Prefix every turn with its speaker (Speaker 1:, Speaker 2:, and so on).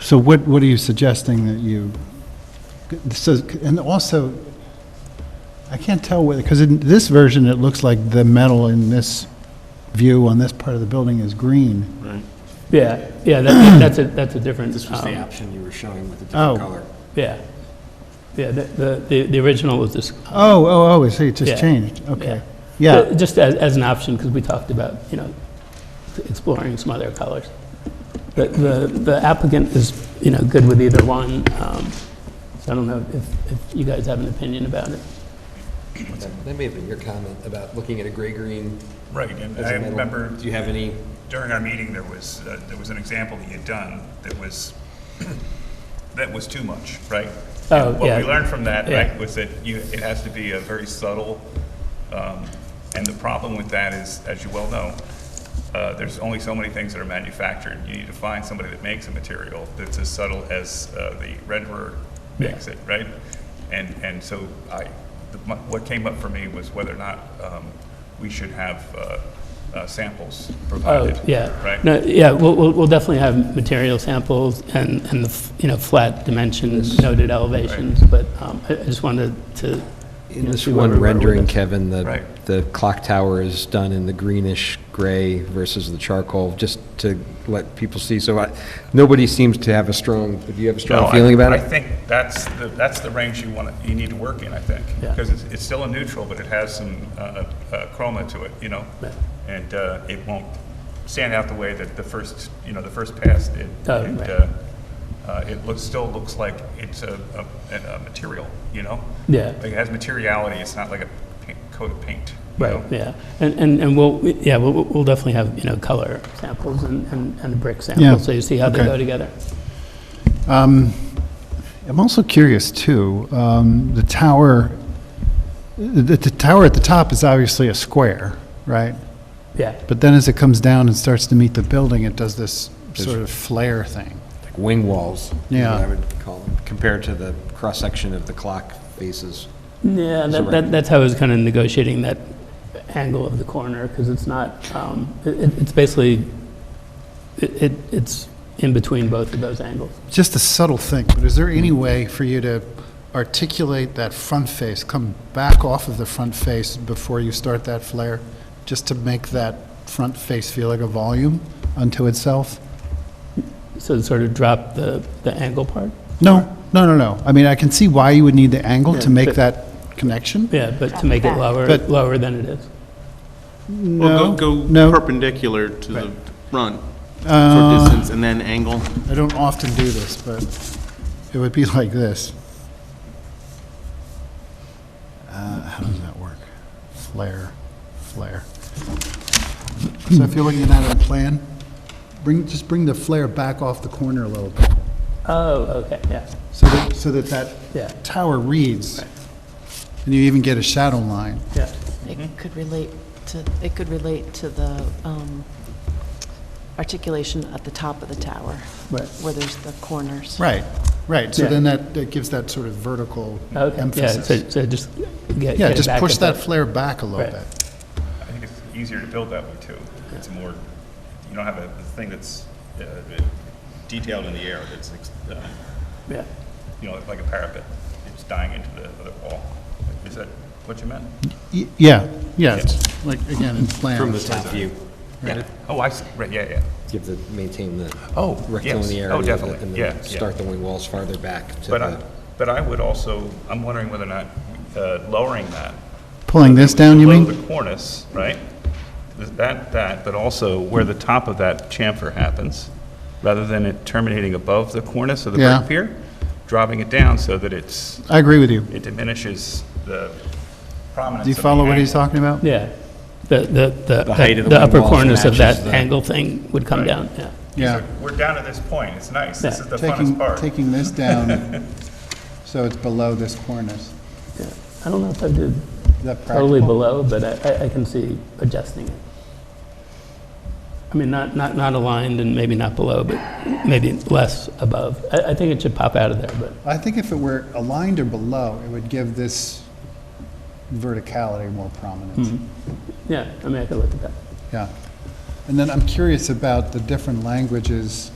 Speaker 1: So what, what are you suggesting that you, so, and also, I can't tell whether, because in this version, it looks like the metal in this view on this part of the building is green.
Speaker 2: Right.
Speaker 3: Yeah, yeah, that- that's a, that's a different.
Speaker 4: This was
Speaker 3: um,
Speaker 4: the option you were showing with the
Speaker 1: Oh.
Speaker 4: different color.
Speaker 3: Yeah. Yeah, the- the, the the original was this.
Speaker 1: Oh, oh, oh, I see, it
Speaker 3: Yeah.
Speaker 1: just changed, okay.
Speaker 3: Uh,
Speaker 1: Yeah,
Speaker 3: Just as, as an option, because we talked about, you know, exploring some other colors. But the the applicant is, you know, good with either one. um, So I don't know if, if you guys have an opinion about it.
Speaker 4: That may have been your comment about looking at a gray-green
Speaker 5: Right, and
Speaker 4: as a
Speaker 5: I
Speaker 4: metal.
Speaker 5: remember
Speaker 4: Do you have any,
Speaker 5: during our meeting, there was, uh, there was an example that you'd done that was, that was too much, right?
Speaker 3: Oh,
Speaker 5: And What
Speaker 3: yeah.
Speaker 5: we learned from that,
Speaker 3: Yeah.
Speaker 5: right, was that you, it has to be a very subtle, um, and the problem with that is, as you well know, uh, there's only so many things that are manufactured. You need to find somebody that makes a material that's as subtle as uh, the renderer makes it, right? And, and so I, the- my- what came up for me was whether or not um, we should have uh, uh, samples
Speaker 3: Oh,
Speaker 5: provided.
Speaker 3: yeah.
Speaker 5: Right?
Speaker 3: No, yeah, we'll, we'll we'll definitely have material samples and, and the, f- you know, flat dimensions, noted elevations, but um, I I just wanted to. you
Speaker 4: in
Speaker 3: know,
Speaker 4: this
Speaker 3: see where we
Speaker 4: one
Speaker 3: were with
Speaker 4: rendering,
Speaker 3: it.
Speaker 4: Kevin, the,
Speaker 5: Right.
Speaker 4: the clock tower is done in the greenish-gray versus the charcoal, just to let people see. So I, nobody seems to have a strong, do you have a
Speaker 5: No,
Speaker 4: strong
Speaker 5: I-
Speaker 4: feeling about
Speaker 5: I
Speaker 4: it?
Speaker 5: think that's, the that's the range you want, you need to work in, I think.
Speaker 3: Yeah.
Speaker 5: Because it's, it's still a neutral, but it has some uh, uh, chroma to it, you know?
Speaker 3: Yeah.
Speaker 5: And uh, it won't stand out the way that the first, you know, the first pass did.
Speaker 3: Oh,
Speaker 5: And,
Speaker 3: right.
Speaker 5: uh, uh, It looks, still looks like it's a, a- an- a material, you know?
Speaker 3: Yeah.
Speaker 5: Like it has materiality, it's not like a paint- coat of paint. you
Speaker 3: Right,
Speaker 5: know?
Speaker 3: yeah. And, and, and we'll, yeah, we'll, we'll definitely have, you know, color samples and, and and brick
Speaker 1: Yeah,
Speaker 3: samples, so you see how they
Speaker 1: okay.
Speaker 3: go together.
Speaker 1: I'm also curious too, um, the tower, the, the tower at the top is obviously a square, right?
Speaker 3: Yeah,
Speaker 1: But then as it comes down and starts to meet the building, it does this sort of flare thing.
Speaker 4: Like Wing walls. is what
Speaker 1: Yeah.
Speaker 4: I would call them, compared to the cross-section of the clock faces.
Speaker 3: yeah, that,
Speaker 4: right.
Speaker 3: that, that's how I was kind of negotiating that angle of the corner, because it's not, um, it, it- it's basically, it, it- it's in between both of those angles.
Speaker 1: Just a subtle thing, but is there any way for you to articulate that front face, come back off of the front face before you start that flare, just to make that front face feel like a volume unto itself?
Speaker 3: So it sort of drop the, the angle part.
Speaker 1: No, no, no, no. I mean, I can see why you would need the angle to
Speaker 3: Yeah,
Speaker 1: make
Speaker 3: but-
Speaker 1: that connection.
Speaker 3: Yeah, but to make it
Speaker 6: Back.
Speaker 3: lower,
Speaker 1: But-
Speaker 3: lower than it is.
Speaker 2: Well,
Speaker 1: No,
Speaker 2: go-
Speaker 1: no.
Speaker 2: go perpendicular to the front for
Speaker 1: Uh,
Speaker 2: distance and then angle.
Speaker 1: I don't often do this, but it would be like this. Uh, How does that work? Flare, flare. So if you're looking at that on a plan, bring, just bring the flare back off the corner a little bit,
Speaker 3: Oh, okay, yeah,
Speaker 1: so that, so that that
Speaker 3: yeah,
Speaker 1: tower reads, and you even get a shadow line.
Speaker 3: yeah.
Speaker 6: It could relate to, it could relate to the um, articulation at the top of the tower,
Speaker 1: Right.
Speaker 6: where there's the corners.
Speaker 1: Right, right, so
Speaker 3: Yeah.
Speaker 1: then that, that gives that sort of vertical
Speaker 3: Okay, yeah, so,
Speaker 1: emphasis.
Speaker 3: so just get,
Speaker 1: Yeah,
Speaker 3: get it
Speaker 1: just
Speaker 3: back
Speaker 1: push
Speaker 3: at the-
Speaker 1: that flare back a little
Speaker 3: Right.
Speaker 1: bit.
Speaker 5: I think it's easier to build that way too. It's more, you don't have a a thing that's uh, detailed in the air, that's, uh,
Speaker 3: Yeah.
Speaker 5: you know, like a parapet. It's dying into the other wall. Is that what you meant?
Speaker 1: Y- Yeah, yeah, it's like, again, in plans.
Speaker 4: From the top view,
Speaker 5: Yeah. Oh, I see, right, yeah, yeah.
Speaker 4: give the, maintain the
Speaker 5: Oh, yes.
Speaker 4: rectilinearity.
Speaker 5: Oh,
Speaker 4: of it,
Speaker 5: definitely.
Speaker 4: and then
Speaker 5: Yeah, yeah.
Speaker 4: Start the wing walls farther back to
Speaker 5: But I,
Speaker 4: the,
Speaker 5: but I would also, I'm wondering whether or not uh, lowering that.
Speaker 1: Pulling this down, you mean?
Speaker 5: Below the cornice, right? Th- That, that, but also where the top of that chamfer happens, rather than it terminating above the cornice of the
Speaker 1: Yeah.
Speaker 5: brick pier, dropping it down so that it's,
Speaker 1: I agree with you.
Speaker 5: it diminishes the prominence
Speaker 1: Do you
Speaker 5: of the
Speaker 1: follow what
Speaker 5: angle.
Speaker 1: he's talking about?
Speaker 3: Yeah, the, the,
Speaker 4: The height
Speaker 3: the,
Speaker 4: of
Speaker 3: the
Speaker 4: the wing
Speaker 3: upper
Speaker 4: walls
Speaker 3: corners of
Speaker 4: matches
Speaker 3: that
Speaker 4: the-
Speaker 3: angle thing would come
Speaker 5: Right.
Speaker 3: down, yeah.
Speaker 1: Yeah.
Speaker 5: We're down at this point, it's nice, this
Speaker 3: Yeah.
Speaker 5: is the funnest
Speaker 1: Taking,
Speaker 5: part.
Speaker 1: taking this down, so it's below this cornice.
Speaker 3: yeah. I don't know if I did
Speaker 1: Is that
Speaker 3: totally
Speaker 1: practical?
Speaker 3: below, but I, I- I can see adjusting it. I mean, not, not, not aligned and maybe not below, but maybe less above. I, I think it should pop out of there, but,
Speaker 1: I think if it were aligned or below, it would give this verticality more prominence.
Speaker 3: Mm-hmm. yeah, I mean, I could look at that.
Speaker 1: Yeah. And then I'm curious about the different languages